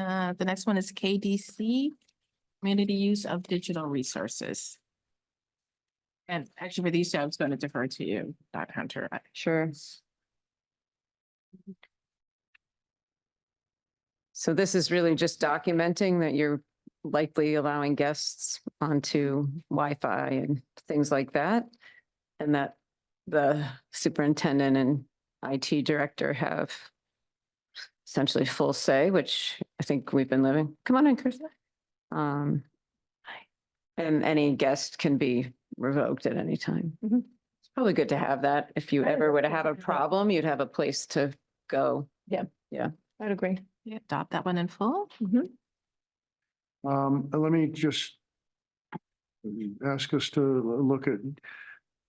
Uh, the next one is KDC, Community Use of Digital Resources. And actually for these two, I was going to defer to you, Dr. Hunter. I- Sure. mm-hmm. So this is really just documenting that you're likely allowing guests onto Wi-Fi and things like that. And that the superintendent and IT director have essentially full say, which I think we've been living. Come on in, Chris. Um, And any guest can be revoked at any time. It's probably good to have that. If you I would ever were to definitely have a have that. problem, you'd have a place to go. I'd agree. Adopt that one in full. Um, and let me just ask us to look at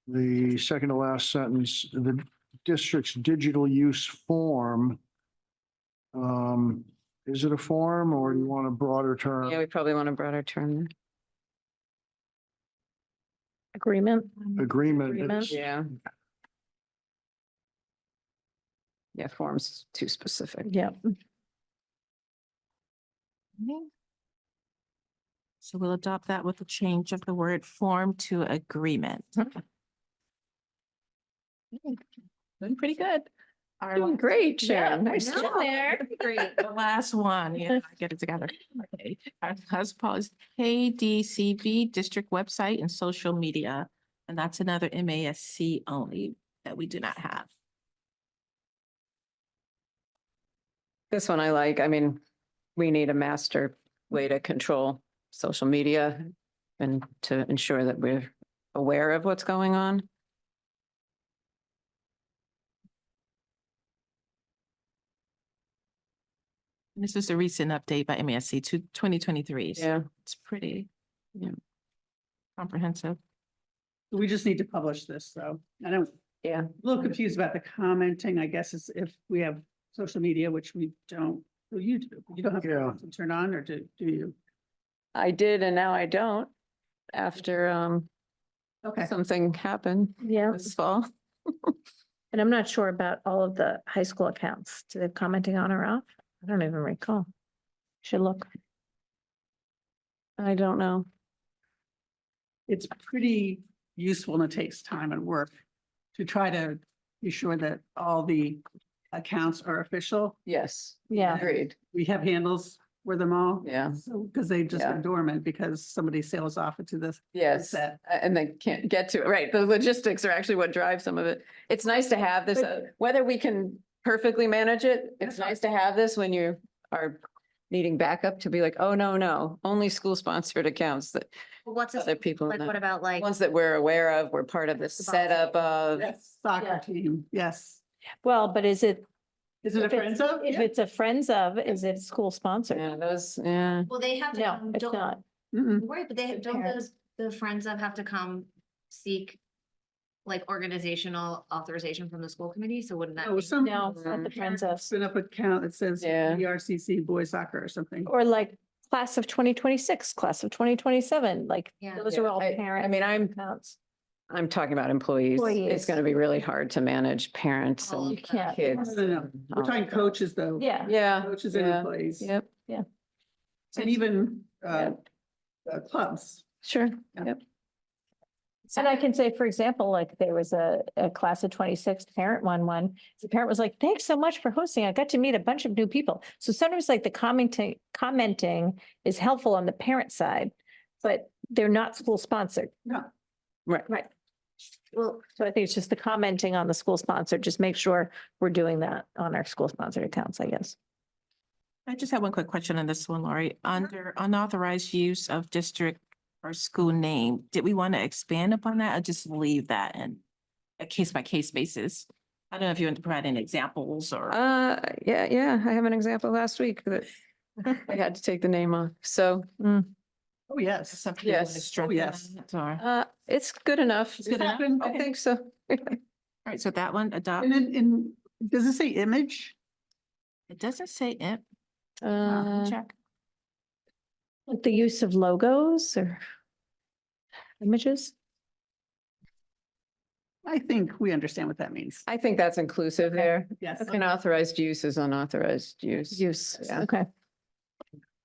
the second to last sentence, the district's digital use form. Um, is it a form or you want a broader Yeah, term? we probably want a broader term. Agreement. Agreement. Agreement. It's- Yeah. Yeah, form's too specific. Yeah. Okay. So we'll adopt that with a change of the word form to agreement. Okay. Doing pretty good. Our Doing last- great, Yeah, Sharon. I Nice job. know. Great. The last one, yeah, I get it together. Okay, our last pause, KDCB district website and social media. And that's another MASC only that we do not have. This one I like. I mean, we need a master way to control social media and to ensure that we're aware of what's going on. And This is a recent update by MASC to twenty twenty-three. Yeah. It's pretty Yeah. comprehensive. We just need to publish this, though. I don't. Yeah. A little confused about the commenting, I guess, is if we have social media, which we don't, well, you do, you don't have Yeah. to turn on or do, do you? I did and now I don't after um Okay. something happened Yeah. this fall. And I'm not sure about all of the high school accounts. Do they have commenting on or off? I don't even recall. Should look. I don't know. It's pretty useful and it takes time and work to try to be sure that all the accounts are official. Yes. Yeah. Agreed. We have handles for them all. Yeah. So, because they've just Yeah. been dormant because somebody sails off into this. Yes. that- A- And they can't get to it. Right. The logistics are actually what drives some of it. It's nice to have this, uh, whether we can perfectly manage it. It's nice to have this when you are needing backup to be like, oh, no, no, only school sponsored accounts that Well, What's, a- other people, like, know. what about like, ones that we're aware of, we're part of the the box. setup of. Soccer Yeah. team, yes. Well, but is it, Is it a If it's- friends of? if Yeah. it's a friends of, is it school sponsored? Yeah, those, yeah. well, they have to, No, come- it's don't not. Mm-mm. worry, but they, The don't parents. those, the friends of have to come seek like organizational authorization from the school committee, so wouldn't that Oh, be? some. No, it's not the friends of. Spin up account that says E Yeah. BRCC boys soccer or something. Or like class of twenty twenty-six, class of twenty twenty-seven, like Yeah. those are Yeah, all I- parent. I mean, I'm- accounts. I'm talking about employees. It's Employees. going to be really hard to manage parents All and of can't- that? No, kids. no, no. We're Oh. talking coaches though. Yeah. Yeah. Coaches and yeah, employees. Yep, And even, uh, Yeah. uh, clubs. sure. Yeah. Yep. And I can say, for example, like there was a, a class of twenty-six parent one, one, the parent was like, thanks so much for hosting. I got to meet a bunch of new people. So sometimes like the commenting, commenting is helpful on the parent side, but they're not school sponsored. Right. Right. Well, So I think it's just the commenting on the school sponsored, just make sure we're doing that on our school sponsored accounts, I guess. I just have one quick question on this one, Lori. Under unauthorized use of district or school name, did we want to expand upon that or just leave that in a case by case basis? I don't know if you want to provide any examples or. Uh, yeah, yeah, I have an example last week that I had to take the name off. So, Hmm. mm, Oh, yes. something you wanna yes. Oh, strengthen yes. that, Or, all uh, it's good enough. It's good enough? I Okay. think so. right, so that one adopt, And then, and does it say image? it doesn't say it, Uh, check. Like the use of logos or images? I think we understand what that means. I think that's inclusive there. Yes. Unauthorized use is unauthorized use. Use, Yeah. okay.